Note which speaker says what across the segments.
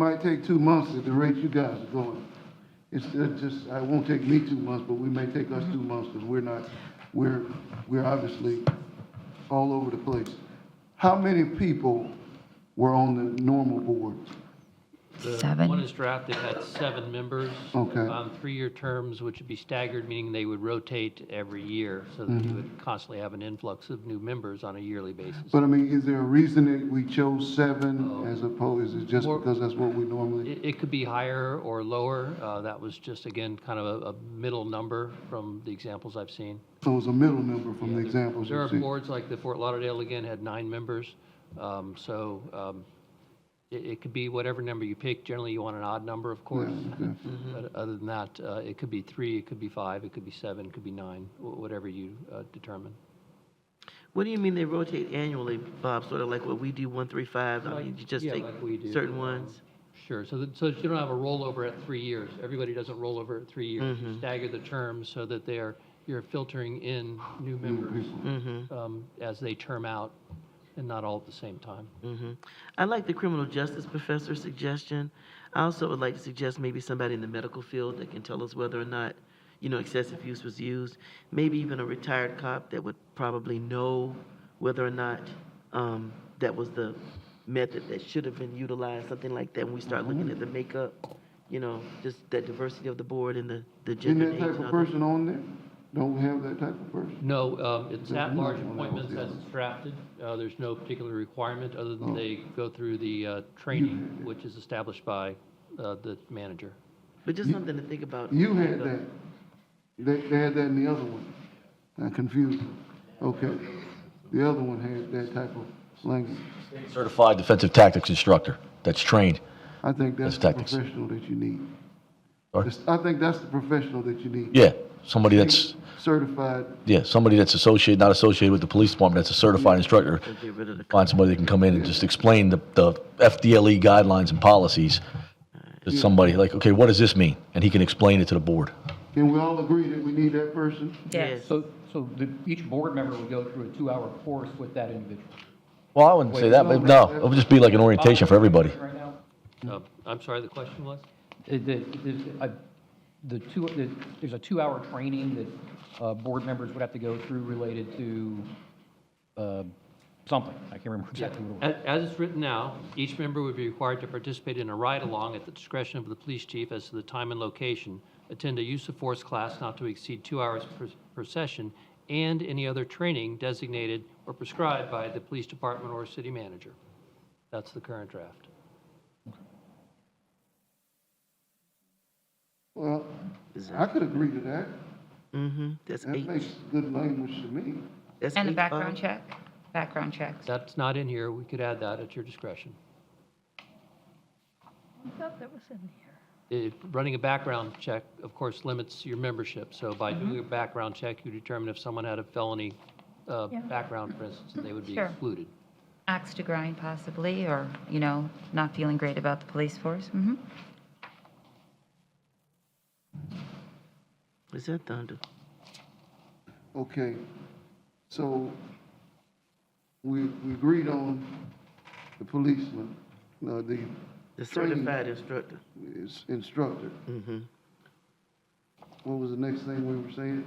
Speaker 1: Might take two months at the rate you guys are going. It's uh, just, it won't take me two months, but we may take us two months because we're not, we're, we're obviously all over the place. How many people were on the normal board?
Speaker 2: The
Speaker 3: Seven.
Speaker 2: One is drafted had seven members.
Speaker 1: Okay.
Speaker 2: On three-year terms, which would be staggered, meaning they would rotate every year, so that you would constantly have an influx of new members on a yearly basis.
Speaker 1: But I mean, is there a reason that we chose seven as opposed, is it just
Speaker 2: Or-
Speaker 1: because that's what we normally?
Speaker 2: It, it could be higher or lower. Uh, That was just, again, kind of a, a middle number from the examples I've seen.
Speaker 1: So it was a middle number from the examples
Speaker 2: There
Speaker 1: you
Speaker 2: are
Speaker 1: see.
Speaker 2: boards like the Fort Lauderdale, again, had nine members. Um, So um, it, it could be whatever number you pick. Generally, you want an odd number, of course.
Speaker 1: okay.
Speaker 2: But other than that, uh, it could be three, it could be five, it could be seven, it could be nine, wh- whatever you uh, determine.
Speaker 4: What do you mean they rotate annually, Bob? Sort of like what we do, one, three, five? I mean, you just
Speaker 2: Yeah,
Speaker 4: take
Speaker 2: like we do,
Speaker 4: certain
Speaker 2: um,
Speaker 4: ones?
Speaker 2: Sure, so that, so that you don't have a rollover at three years. Everybody doesn't roll over at three years. You Stagger the terms so that they are, you're filtering in new members um, as they term out and not all at the same time.
Speaker 4: hmm I like the criminal justice professor's suggestion. I also would like to suggest maybe somebody in the medical field that can tell us whether or not, you know, excessive use was used. Maybe even a retired cop that would probably know whether or not um, that was the method that should have been utilized, something like that. When we start
Speaker 2: Mm-hmm.
Speaker 4: looking at the makeup, you know, just that diversity of the board and the, the
Speaker 1: Isn't
Speaker 4: gender.
Speaker 1: that
Speaker 4: and age
Speaker 1: type
Speaker 4: and
Speaker 1: of
Speaker 4: all that.
Speaker 1: person on there? Don't we have that type of person?
Speaker 2: No, um, it's
Speaker 1: Yeah,
Speaker 2: at-large
Speaker 1: no, no,
Speaker 2: appointments
Speaker 1: yeah.
Speaker 2: as it's drafted. Uh, There's no particular requirement, other than they go through the uh, training, which is established by uh, the manager.
Speaker 4: But just something to think about.
Speaker 1: You had that. They, they had that in the other one. I confused them. Okay. The other one had that type of language.
Speaker 5: Certified defensive tactics instructor that's trained.
Speaker 1: I think that's
Speaker 5: That's
Speaker 1: the
Speaker 5: tactics.
Speaker 1: professional that you need.
Speaker 5: Sorry?
Speaker 1: It's- I think that's the professional that you need.
Speaker 5: Yeah, somebody that's
Speaker 1: Certified.
Speaker 5: yeah somebody that's associated, not associated with the police department. That's a certified instructor.
Speaker 4: So Get rid of the.
Speaker 5: Find somebody that can come in and just explain the, the FDLE E guidelines and policies to somebody. Like, okay, what does this mean? And he can explain it to the board.
Speaker 1: Can we all agree that we need that person?
Speaker 4: Yes.
Speaker 6: So, so the, each board member would go through a two-hour course with that individual?
Speaker 5: Well, I wouldn't say that, but no, it would just be like an orientation for everybody.
Speaker 6: Right now,
Speaker 2: Uh, I'm sorry, the question was?
Speaker 6: the, the- the, I- the two, the- there's a two-hour training that, uh, board members would have to go through related to, uh, something. I can't remember exactly what it was.
Speaker 2: As, as it's written now, each member would be required to participate in a ride-along at the discretion of the police chief as to the time and location, attend a use of force class not to exceed two hours per, per session, and any other training designated or prescribed by the police department or city manager. That's the current draft.
Speaker 1: Well, I could agree to that.
Speaker 4: Mm-hmm, that's
Speaker 1: That
Speaker 4: eight.
Speaker 1: makes good language to me.
Speaker 4: That's
Speaker 3: And a
Speaker 4: eight, uh,
Speaker 3: background
Speaker 4: Bob.
Speaker 3: check, background checks.
Speaker 2: That's not in here. We could add that at your discretion. If, running a background check, of course, limits your membership. So by doing a background check, you determine if someone had a felony, uh, background, for instance, they would be
Speaker 3: Sure.
Speaker 2: excluded.
Speaker 3: Axe to grind possibly, or, you know, not feeling great about the police force. Mhm.
Speaker 4: Is that thunder?
Speaker 1: Okay, so we, we agreed on the policeman, uh, the
Speaker 4: The
Speaker 1: Training.
Speaker 4: certified instructor. Mm-hmm.
Speaker 1: is- instructor. What was the next thing we were saying?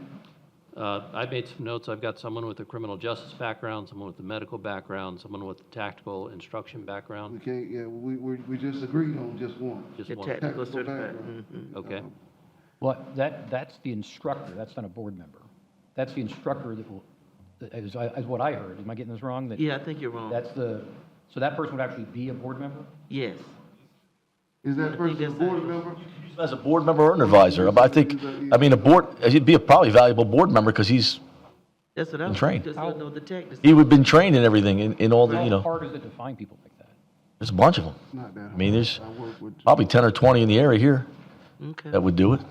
Speaker 2: Uh, I made some notes. I've got someone with a criminal justice background, someone with a medical background, someone with a tactical instruction
Speaker 1: We
Speaker 2: background,
Speaker 1: can't, yeah, we, we, we just agreed on just one.
Speaker 2: just
Speaker 4: The
Speaker 2: one,
Speaker 4: tactical
Speaker 1: Tactical
Speaker 4: certified.
Speaker 1: background.
Speaker 4: mhm.
Speaker 2: okay?
Speaker 6: Well, that, that's the instructor, that's not a board member. That's the instructor that will, is, is what I heard. Am I getting this wrong? That-
Speaker 4: Yeah, I think you're wrong.
Speaker 6: That's the, so that person would actually be a board member?
Speaker 4: Yes.
Speaker 1: Is that
Speaker 4: think
Speaker 1: person a
Speaker 4: that's
Speaker 1: board
Speaker 4: that.
Speaker 1: member?
Speaker 5: As a board member or an advisor, but I think, I mean, a board, he'd be a probably valuable board member because he's,
Speaker 4: That's what I was,
Speaker 5: trained.
Speaker 4: just don't know the tactics.
Speaker 5: he would have been trained in everything, in, in all the, you
Speaker 6: How
Speaker 5: know,
Speaker 6: hard is it to find people like that?
Speaker 5: there's a bunch of them.
Speaker 1: Not that.
Speaker 5: I mean, there's
Speaker 1: hard. I work with,
Speaker 5: probably 10 or 20 in the area here
Speaker 4: Okay.
Speaker 5: that would do it.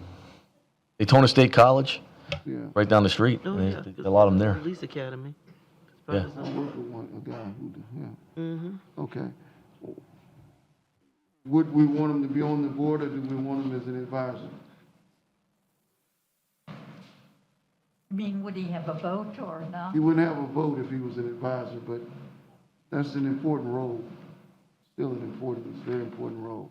Speaker 5: Daytona State College,
Speaker 1: yeah,
Speaker 5: right down the street.
Speaker 4: Oh,
Speaker 5: There's
Speaker 4: yeah, 'cause
Speaker 5: A lot of them there.
Speaker 4: Police academy.
Speaker 5: Yeah.
Speaker 1: I work with one, a guy who, do- yeah. Mm-hmm. Okay. Would we want him to be on the board or do we want him as an advisor?
Speaker 7: I mean, would he have a vote or not?
Speaker 1: He wouldn't have a vote if he was an advisor, but that's an important role. Still still an important, it's a very important role.